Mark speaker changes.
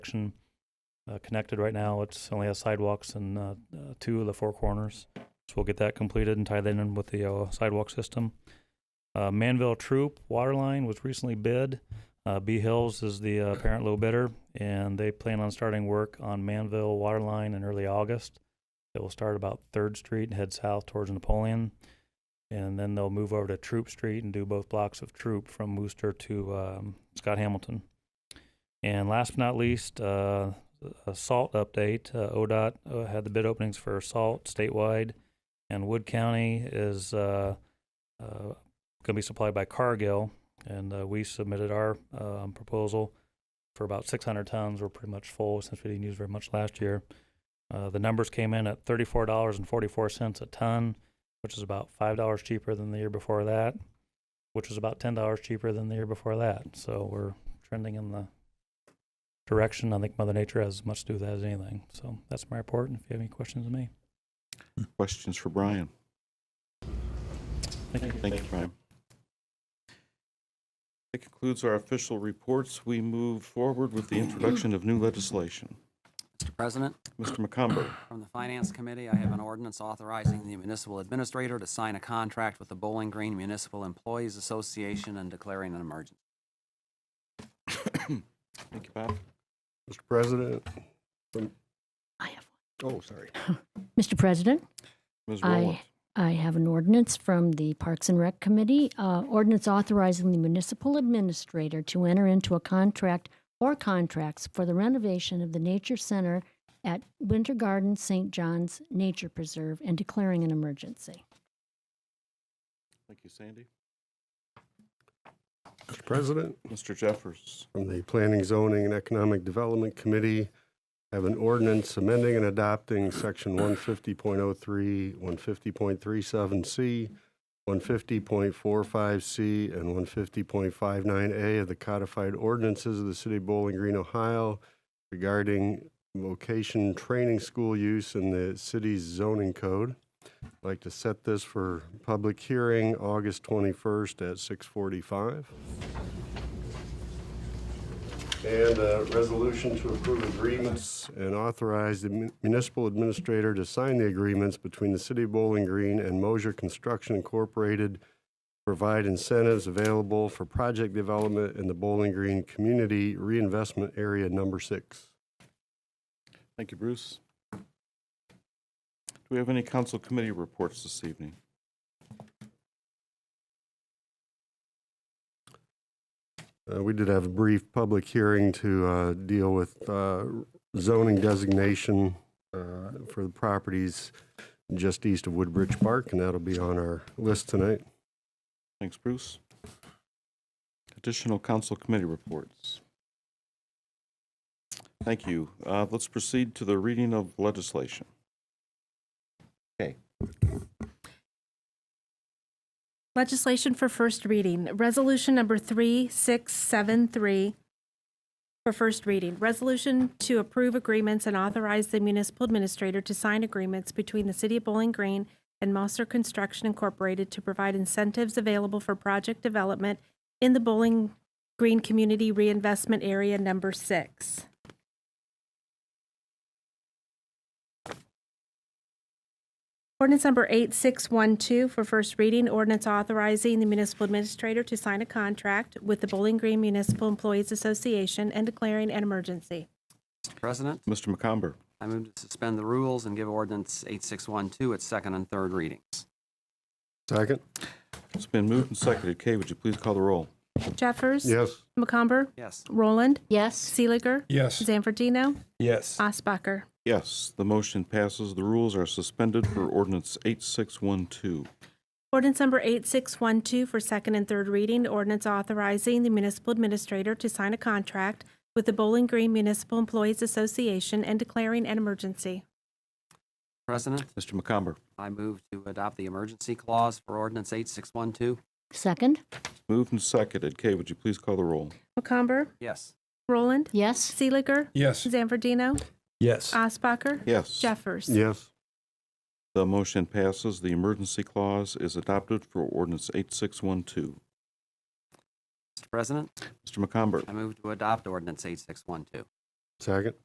Speaker 1: section uh, connected right now. It's only has sidewalks in uh, uh, two of the four corners. So we'll get that completed and tie that in with the uh, sidewalk system. Uh, Manville Troop water line was recently bid. Uh, B Hills is the uh, apparent low bidder, and they plan on starting work on Manville water line in early August. It will start about Third Street and head south towards Napoleon, and then they'll move over to Troop Street and do both blocks of Troop from Wooster to um, Scott Hamilton. And last but not least, uh, a salt update. Uh, ODOT uh, had the bid openings for salt statewide, and Wood County is uh, uh, going to be supplied by Cargill. And uh, we submitted our um, proposal for about 600 tons. We're pretty much full since we didn't use very much last year. Uh, the numbers came in at $34.44 a ton, which is about $5 cheaper than the year before that, which was about $10 cheaper than the year before that. So we're trending in the direction. I think Mother Nature has as much to do with that as anything. So that's my report. And if you have any questions of me,
Speaker 2: Questions for Brian?
Speaker 1: thank you.
Speaker 2: Thank you, Brian. That concludes our official reports. We move forward with the introduction of new legislation.
Speaker 3: Mr. President,
Speaker 2: Mr. McComber,
Speaker 3: from the Finance Committee, I have an ordinance authorizing the municipal administrator to sign a contract with the Bowling Green Municipal Employees Association and declaring an emergency.
Speaker 2: thank you, Bob.
Speaker 4: Mr. President. I have one. Oh, sorry.
Speaker 5: Mr. President,
Speaker 2: Ms. Rowland,
Speaker 5: I, I have an ordinance from the Parks and Rec Committee, uh, ordinance authorizing the municipal administrator to enter into a contract or contracts for the renovation of the Nature Center at Winter Garden St. John's Nature Preserve and declaring an emergency.
Speaker 2: thank you, Sandy.
Speaker 4: Mr. President,
Speaker 2: Mr. Jeffers,
Speaker 4: from the Planning, Zoning, and Economic Development Committee, I have an ordinance amending and adopting Section 150.03, 150.37C, 150.45C, and 150.59A of the codified ordinances of the City of Bowling Green, Ohio regarding vocation training school use in the city's zoning code. I'd like to set this for public hearing August 21st at 6:45. And a resolution to approve agreements and authorize the mun- municipal administrator to sign the agreements between the City of Bowling Green and Mosier Construction Incorporated, provide incentives available for project development in the Bowling Green Community Reinvestment Area Number Six.
Speaker 2: thank you, Bruce. Do we have any council committee reports this evening?
Speaker 4: Uh, We did have a brief public hearing to uh, deal with uh, zoning designation uh, for the properties just east of Woodbridge Park, and that'll be on our list tonight.
Speaker 2: Thanks, Bruce. Additional council committee reports. Thank you. Uh, Let's proceed to the reading of legislation.
Speaker 6: Legislation for first reading, Resolution Number 3673 for first reading. Resolution to approve agreements and authorize the municipal administrator to sign agreements between the City of Bowling Green and Mosser Construction Incorporated to provide incentives available for project development in the Bowling Green Community Reinvestment Area Number Six. Ordinance number 8612 for first reading, ordinance authorizing the municipal administrator to sign a contract with the Bowling Green Municipal Employees Association and declaring an emergency.
Speaker 3: Mr. President,
Speaker 2: Mr. McComber,
Speaker 3: I move to suspend the rules and give ordinance 8612 its second and third readings.
Speaker 4: Second?
Speaker 2: it's been moved and seconded. Kay, would you please call the roll?
Speaker 6: Jeffers.
Speaker 4: Yes.
Speaker 6: McComber.
Speaker 3: Yes.
Speaker 6: Roland.
Speaker 5: Yes,
Speaker 6: Seeliger.
Speaker 4: Yes.
Speaker 6: Zanfordino.
Speaker 4: Yes.
Speaker 6: Osbacher.
Speaker 2: Yes, the motion passes. The rules are suspended for ordinance 8612.
Speaker 6: Ordinance number 8612 for second and third reading, ordinance authorizing the municipal administrator to sign a contract with the Bowling Green Municipal Employees Association and declaring an emergency.
Speaker 3: President,
Speaker 2: Mr. McComber,
Speaker 3: I move to adopt the emergency clause for ordinance 8612.
Speaker 5: second,
Speaker 2: moved and seconded. Kay, would you please call the roll?
Speaker 6: McComber.
Speaker 3: Yes.
Speaker 6: Roland.
Speaker 5: yes,
Speaker 6: Seeliger.
Speaker 4: Yes.
Speaker 6: Zanfordino.
Speaker 4: Yes.
Speaker 6: Osbacher.
Speaker 2: Yes.
Speaker 6: Jeffers.
Speaker 4: Yes.
Speaker 2: The motion passes. The emergency clause is adopted for ordinance 8612.
Speaker 3: Mr. President,
Speaker 2: Mr. McComber,
Speaker 3: I move to adopt ordinance 8612.
Speaker 4: Second.